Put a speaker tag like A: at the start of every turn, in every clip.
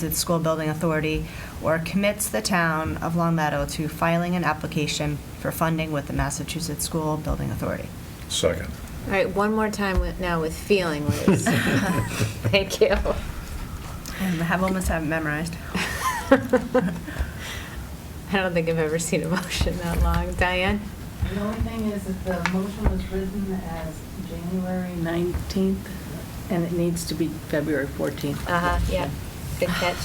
A: to the School Building Authority or commits the town of Long Meadow to filing an application for funding with the Massachusetts School Building Authority.
B: Second.
C: All right, one more time with, now with feeling, Liz. Thank you.
A: I have, almost have it memorized.
C: I don't think I've ever seen a motion that long. Diane?
D: The only thing is that the motion was written as January 19th, and it needs to be February 14th.
C: Uh-huh, yeah, good catch.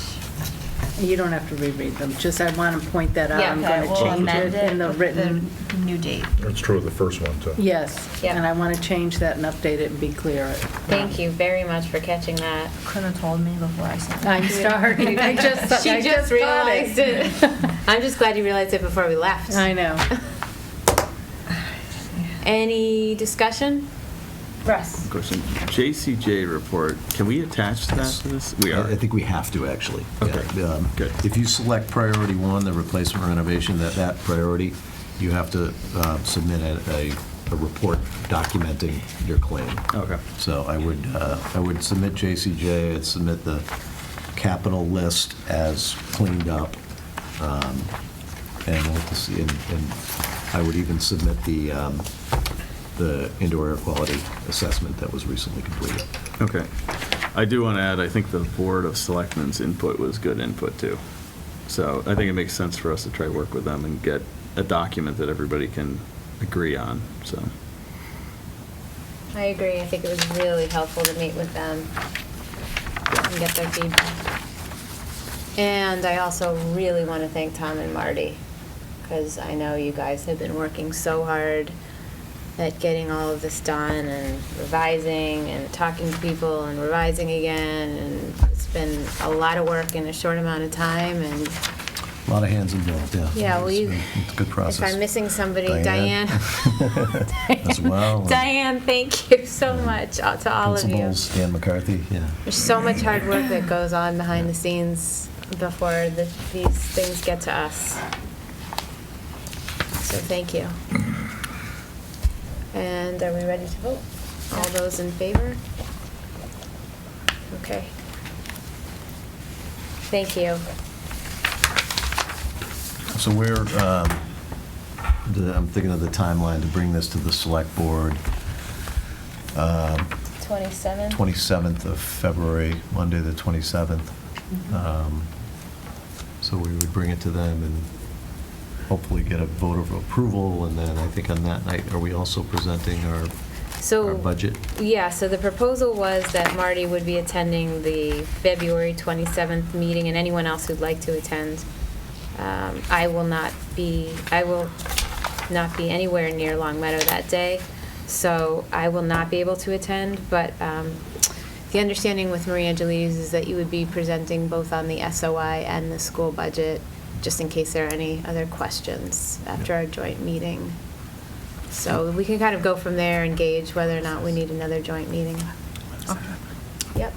D: You don't have to reread them, just I want to point that out.
C: Yeah,
D: I'm
C: okay,
D: going to
B: we'll
D: change
B: amend
D: it in the
A: with
D: written,
A: the New date.
B: That's true of the first one, too.
D: yes.
C: Yeah.
D: And I want to change that and update it and be clear.
C: Thank you very much for catching that.
A: Couldn't have told me before I signed.
D: I'm starting. I just,
C: She
D: I
C: just
D: just thought
C: realized
D: it.
C: it. I'm just glad you realized it before we left.
D: I know.
C: Any discussion?
A: Russ?
E: Question, JCJ report, can we attach that to this? We
F: I
E: are.
F: I think we have to, actually.
E: Okay.
F: Yeah, um,
E: Good.
F: If you select priority one, the replacement renovation, that, that priority, you have to uh, submit a, a- a report documenting your claim.
E: Okay.
F: So I would, uh, I would submit JCJ, I'd submit the capital list as cleaned up, um, and we'll have to see, and and I would even submit the, um, the indoor air quality assessment that was recently completed.
E: Okay. I do want to add, I think the Board of Selectmen's input was good input, too. So I think it makes sense for us to try to work with them and get a document that everybody can agree on, so.
C: I agree, I think it was really helpful to meet with them and get their feedback. And I also really want to thank Tom and Marty, because I know you guys have been working so hard at getting all of this done and revising and talking to people and revising again, and it's been a lot of work in a short amount of time, and
F: A lot of hands involved, yeah.
C: yeah, well, you.
F: It's a good process.
C: If I'm missing somebody, Diane.
F: Diane. As well.
C: Diane, thank you so much uh, to all of you.
F: Principals, Dan McCarthy, yeah.
C: There's so much hard work that goes on behind the scenes before the, these things get to us. So thank you. And are we ready to vote? All those in favor? Okay. Thank you.
F: So we're, um, the- I'm thinking of the timeline to bring this to the select board, um,
C: 27?
F: 27th of February, Monday, the 27th.
E: Uh-huh.
F: Um, So we would bring it to them and hopefully get a vote of approval, and then I think on that night, are we also presenting our
C: So.
F: our budget?
C: Yeah, so the proposal was that Marty would be attending the February 27th meeting, and anyone else who'd like to attend. Um, I will not be, I will not be anywhere near Long Meadow that day, so I will not be able to attend, but um, the understanding with Marie Angelides is that you would be presenting both on the SOI and the school budget, just in case there are any other questions after our joint meeting. So we can kind of go from there and gauge whether or not we need another joint meeting. Yep.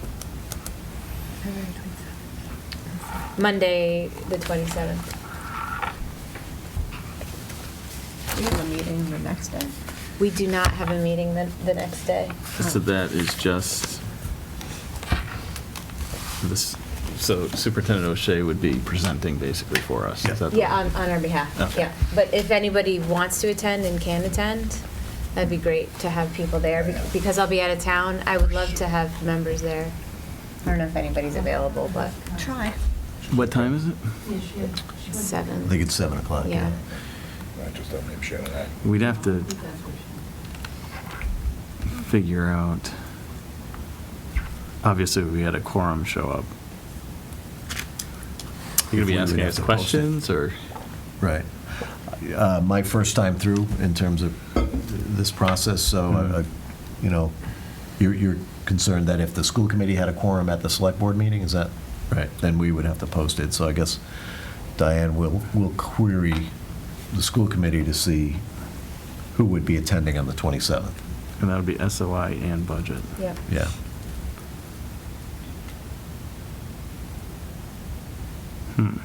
C: Monday, the 27th.
A: We have a meeting the next day.
C: We do not have a meeting the, the next day.
E: So that is just, this, so Superintendent O'Shea would be presenting basically for us. Is that the-
C: Yeah, on, on our behalf,
E: Okay.
C: yeah. But if anybody wants to attend and can attend, that'd be great to have people there. bec- Because I'll be out of town, I would love to have members there. I don't know if anybody's available, but
A: Try.
E: What time is it?
C: seven.
F: I think it's 7 o'clock.
C: Yeah.
B: I just don't name Shannon that.
E: We'd have to figure out, obviously, we had a quorum show up. You gonna
F: We
E: be
F: would
E: asking
F: have
E: us
F: to post it.
E: questions, or?
F: Right. Uh, My first time through in terms of this process, so, I- I- you know, you're- you're concerned that if the school committee had a quorum at the select board meeting, is that? Right. Then we would have to post it. So I guess Diane will, will query the school committee to see who would be attending on the 27th.
E: And that would be SOI and budget.
C: Yep.
F: Yeah.
E: Hmm.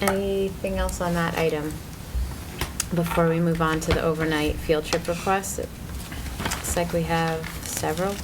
C: Anything else on that item before we move on to the overnight field trip request? It's like we have several